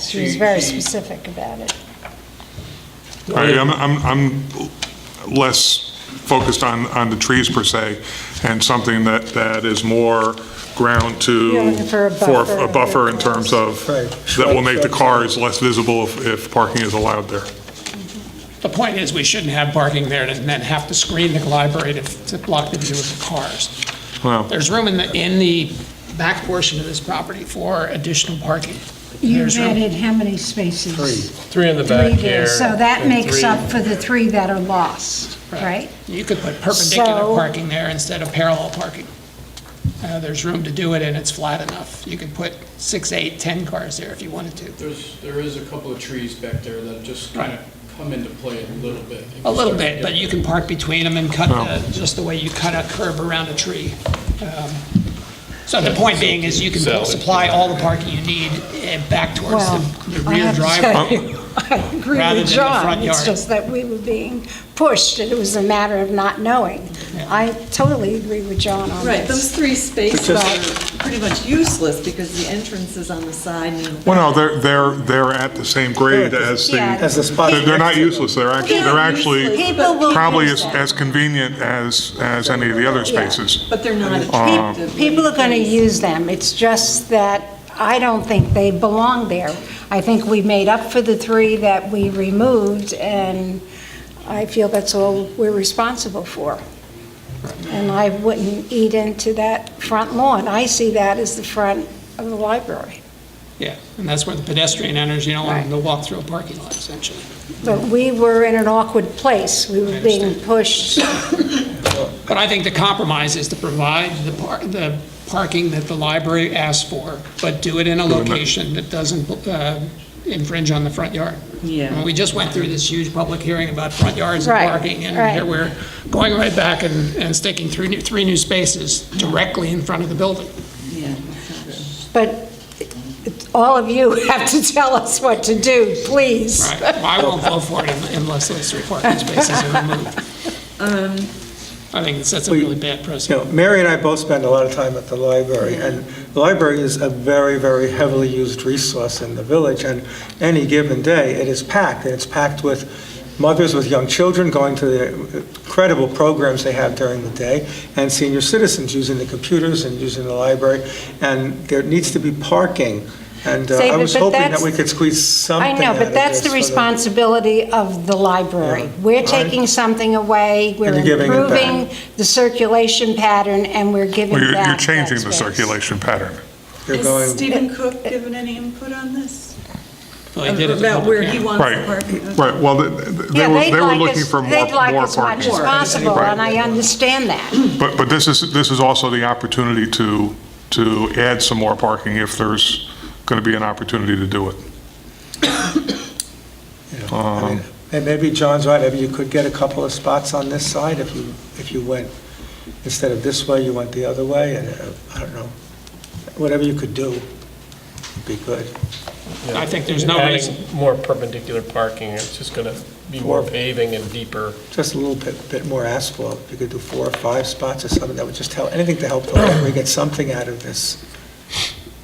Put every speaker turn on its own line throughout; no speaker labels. She was very specific about it.
I, I'm, I'm, I'm less focused on, on the trees per se, and something that, that is more ground to,
Yeah, for a
for
buffer.
a buffer in terms of,
Right.
that will make the cars less visible if, if parking is allowed there.
The point is, we shouldn't have parking there and then have to screen the library to, to block the view of the cars.
Well,
There's room in the, in the back portion of this property for additional parking.
You've
There's room.
added how many spaces?
Three in the
Three
back
there,
here.
so that
and
makes
three-
up for the three that are lost, right?
You could put perpendicular
So-
parking there instead of parallel parking. Uh, There's room to do it, and it's flat enough. You could put six, eight, 10 cars there if you wanted to.
There's, there is a couple of trees back there that just kind
Right.
of come into play a little bit.
A little bit, but
Yeah.
you can park between them and cut, the- just the way you cut a curb around a tree. Um, So the point being is you can supply all the parking you need eh, back towards
Well,
the the
I
rear
have to
driveway.
tell you, I agree
rather than
with
the
John.
front
It's
yard.
just that we were being pushed, and it was a matter of not knowing. I totally agree with John on
Right,
this.
Um, those three spaces
Because-
are pretty much useless because the entrance is on the side and. the
well, no, they're, they're, they're at the same grade as the,
Yeah.
they're
As the spot.
they're not useless, they're actually, they're actually
People will
probably
use
as,
them.
as convenient as, as any of the other spaces.
But they're not
Uh,
Pe-
attractive.
People are going to use them. It's just that I don't think they belong there. I think we made up for the three that we removed, and I feel that's all we're responsible for. And I wouldn't eat into that front lawn. I see that as the front of the library.
Yeah, and that's where the pedestrian enters. You don't want them
Right.
to walk through a parking lot, essentially.
But we were in an awkward place. We were being pushed.
But I think the compromise is to provide the par, the parking that the library asks for, but do it in a location that doesn't uh, infringe on the front yard.
Yeah.
And We just went through this huge public hearing about front yards and
Right,
parking, and
right.
here we're going right back and, and sticking three new, three new spaces directly in front of the building.
Yeah.
But it- it- all of you have to tell us what to do, please.
Right? I won't vote for it unless those three parking spaces are removed.
Um,
I think it sets a really bad
You
precedent.
know, Mary and I both spend a lot of time at the library, and the library is a very, very heavily used resource in the village, and any given day, it is packed, and it's packed with mothers with young children going to the incredible programs they have during the day, and senior citizens using the computers and using the library, and there needs to be parking, and uh,
Say,
I
but-
was
but
hoping that
that's-
we could squeeze something
I
out of
know, but that's
this
the
for
responsibility of the library.
Yeah.
We're
Right.
taking something away, we're
you're giving it back.
improving the circulation pattern, and we're giving back
Well, You're, you're
that
changing the
space.
circulation pattern.
You're going-
Has Stephen Cook given any input on this?
Well, they did at the
uh, About
public
where
hearing.
he wants the
Right,
parking? Okay.
right, well, th- th- they
Yeah,
were,
they'd
they were
like
looking
us-
for more,
They'd like
more
as much
parking.
as possible, and I understand that.
But, but this is, this is also the opportunity to, to add some more parking if there's going to be an opportunity to do it.
you know, I mean, And maybe John's right, maybe you could get a couple of spots on this side if you, if you went, instead of this way, you went the other way, and, uh, I don't know, whatever you could do would be good.
I think there's no
Adding
reason.
more perpendicular parking, it's just going to be more
Four.
paving and deeper.
Just a little bit, bit more asphalt, you could do four or five spots or something, that would just help, anything to help the library get something out of this.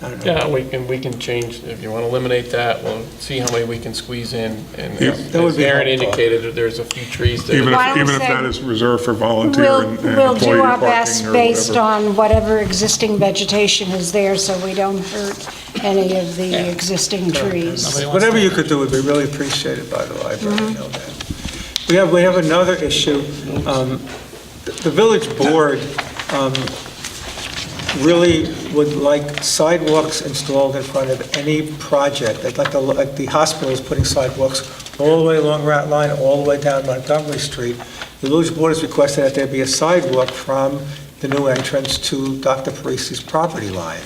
I don't know.
Yeah, we can, we can change, if you want to eliminate that, we'll see how many we can squeeze in. And
Yeah.
as
That would
as
be
Aaron
helpful.
indicated, that there's a few trees
Even
that,
Why don't
if,
we
even if
say-
that is reserved for volunteer
We'll,
and and
we'll
employee
do our
parking
best
or
based
whatever.
on whatever existing vegetation is there, so we don't hurt any of the existing trees.
Nobody wants
Whatever
to-
you could do would be really appreciated by the library, I know that. We have, we have another issue. Um, The the village board um, really would like sidewalks installed in front of any project. They'd like the, like the hospital's putting sidewalks all the way along Rat Line, all the way down Montgomery Street. The village board has requested that there be a sidewalk from the new entrance to Dr. Parisi's property line.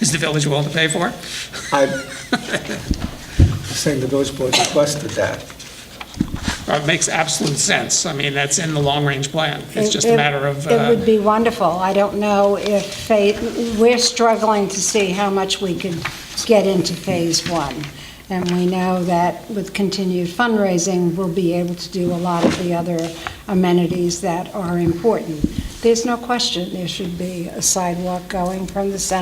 Is the village willing to pay for it?
I'm saying the village board requested that.
It makes absolute sense. I mean, that's in the long-range plan. It's
It-
just a
it-
matter of,
It would
uh,
be wonderful. I don't know if, fa- we're struggling to see how much we could get into Phase One. And we know that with continued fundraising, we'll be able to do a lot of the other amenities that are important. There's no question there should be a sidewalk going from the center